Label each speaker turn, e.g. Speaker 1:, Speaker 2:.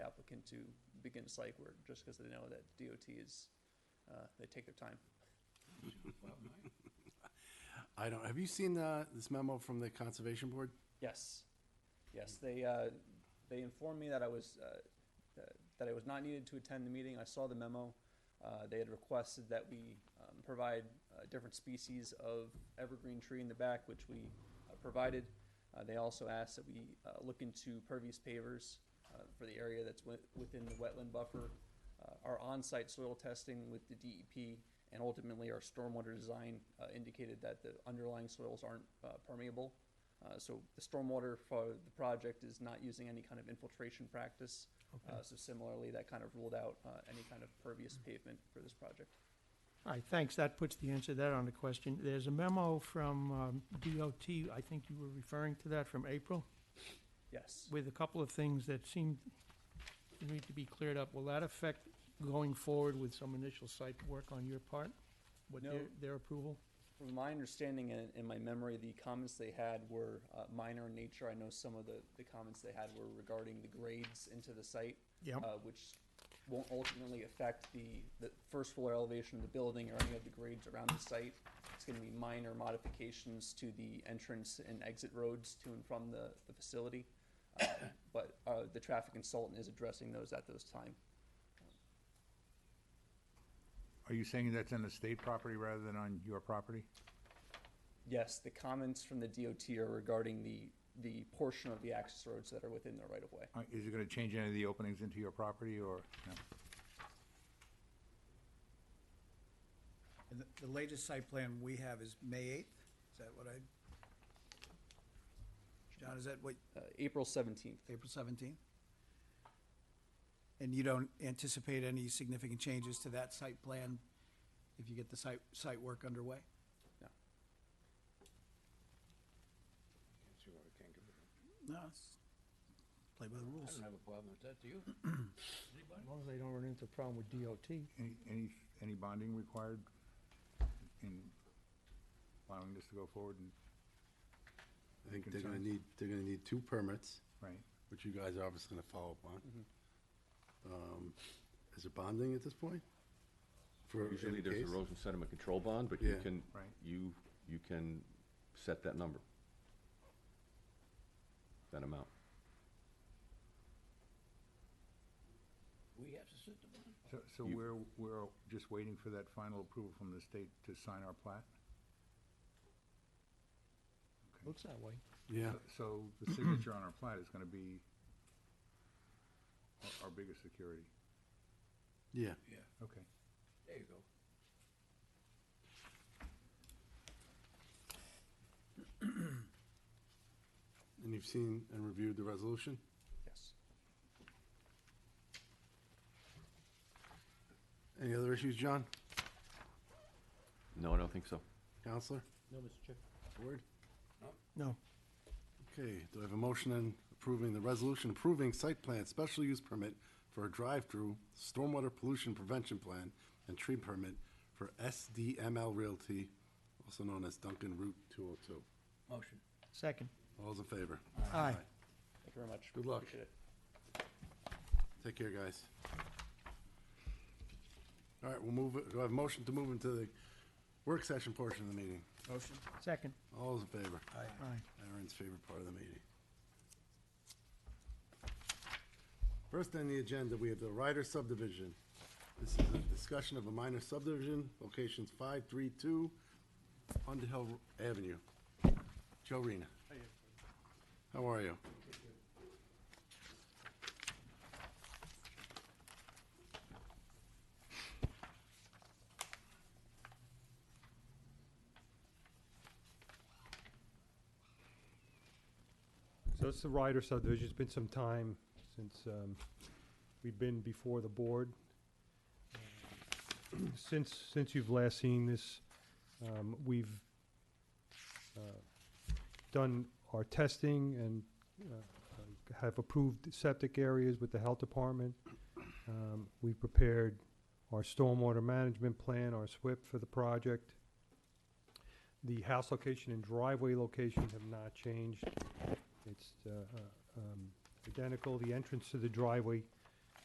Speaker 1: looking to begin site work, just because they know that DOT is, uh, they take their time.
Speaker 2: I don't, have you seen uh, this memo from the Conservation Board?
Speaker 1: Yes, yes, they, uh, they informed me that I was, uh, that- that I was not needed to attend the meeting, I saw the memo. Uh, they had requested that we, um, provide, uh, different species of evergreen tree in the back, which we, uh, provided. Uh, they also asked that we, uh, look into pervious pavers, uh, for the area that's wi- within the wetland buffer. Uh, our on-site soil testing with the DEP and ultimately our stormwater design, uh, indicated that the underlying soils aren't, uh, permeable. Uh, so the stormwater for the project is not using any kind of infiltration practice. Uh, so similarly, that kind of ruled out, uh, any kind of pervious pavement for this project.
Speaker 3: All right, thanks. That puts the answer to that on the question. There's a memo from um, DOT, I think you were referring to that, from April,
Speaker 1: Yes.
Speaker 3: with a couple of things that seem to need to be cleared up. Will that affect going forward with some initial site work on your part? With their,
Speaker 1: No.
Speaker 3: their approval?
Speaker 1: From my understanding and in my memory, the comments they had were, uh, minor in nature. I know some of the, the comments they had were regarding the grades into the site.
Speaker 3: Yep.
Speaker 1: uh, which won't ultimately affect the, the first floor elevation of the building or any of the grades around the site. It's gonna be minor modifications to the entrance and exit roads to and from the, the facility. Uh, But, uh, the traffic consultant is addressing those at those time.
Speaker 4: Are you saying that's on the state property rather than on your property?
Speaker 1: Yes, the comments from the DOT are regarding the, the portion of the access roads that are within the right of way.
Speaker 4: Uh, Is it gonna change any of the openings into your property or, no?
Speaker 5: And the, the latest site plan we have is May eighth, is that what I? John, is that what,
Speaker 1: Uh, April seventeenth.
Speaker 5: April seventeenth? And you don't anticipate any significant changes to that site plan if you get the site, site work underway? No, it's- play by the
Speaker 6: I
Speaker 5: rules.
Speaker 6: don't have a problem with that, do you?
Speaker 3: As long as they don't run into a problem with DOT.
Speaker 4: any, any, any bonding required in allowing this to go forward and,
Speaker 2: I think they're gonna
Speaker 4: Concerns?
Speaker 2: need, they're gonna need two permits,
Speaker 4: right?
Speaker 2: which you guys are obviously gonna follow up on. Um, Is it bonding at this point? For in
Speaker 7: Usually there's
Speaker 2: case?
Speaker 7: erosion sediment control bond, but you
Speaker 2: Yeah.
Speaker 7: can,
Speaker 4: Right.
Speaker 7: you, you can set that number. That amount.
Speaker 6: We have to sit the bond.
Speaker 4: So, so
Speaker 7: You-
Speaker 4: we're, we're just waiting for that final approval from the state to sign our plat?
Speaker 3: Looks that way.
Speaker 2: Yeah,
Speaker 4: So- So the signature on our plat is gonna be our, our biggest security.
Speaker 2: yeah.
Speaker 6: Yeah,
Speaker 4: Okay.
Speaker 6: there you go.
Speaker 2: And you've seen and reviewed the resolution?
Speaker 1: Yes.
Speaker 2: Any other issues, John?
Speaker 7: No, I don't think so.
Speaker 2: Counselor?
Speaker 6: No, Mr. Chair.
Speaker 2: Word?
Speaker 3: No.
Speaker 2: Okay, do I have a motion on approving the resolution approving site plan special use permit for a drive-through stormwater pollution prevention plan and tree permit for SDML Realty, also known as Duncan Route 202?
Speaker 6: Motion.
Speaker 3: Second.
Speaker 2: All's in favor?
Speaker 3: Aye.
Speaker 1: Thank you very much.
Speaker 2: Good luck.
Speaker 1: Appreciate it.
Speaker 2: Take care, guys. All right, we'll move, it- do I have a motion to move into the work session portion of the meeting?
Speaker 5: Motion?
Speaker 3: Second.
Speaker 2: All those in favor?
Speaker 3: Aye.
Speaker 2: Aaron's favorite part of the meeting. First on the agenda, we have the Ryder subdivision. This is a discussion of a minor subdivision, locations 532 Underhill Avenue. Joe Rena. How are you?
Speaker 8: So it's the Ryder subdivision. It's been some time since um, we've been before the board. Um, Since, since you've last seen this, um, we've uh, done our testing and uh, have approved septic areas with the health department. Um, We've prepared our stormwater management plan, our SWIP for the project. The house location and driveway location have not changed. It's uh, uh, um, identical, the entrance to the driveway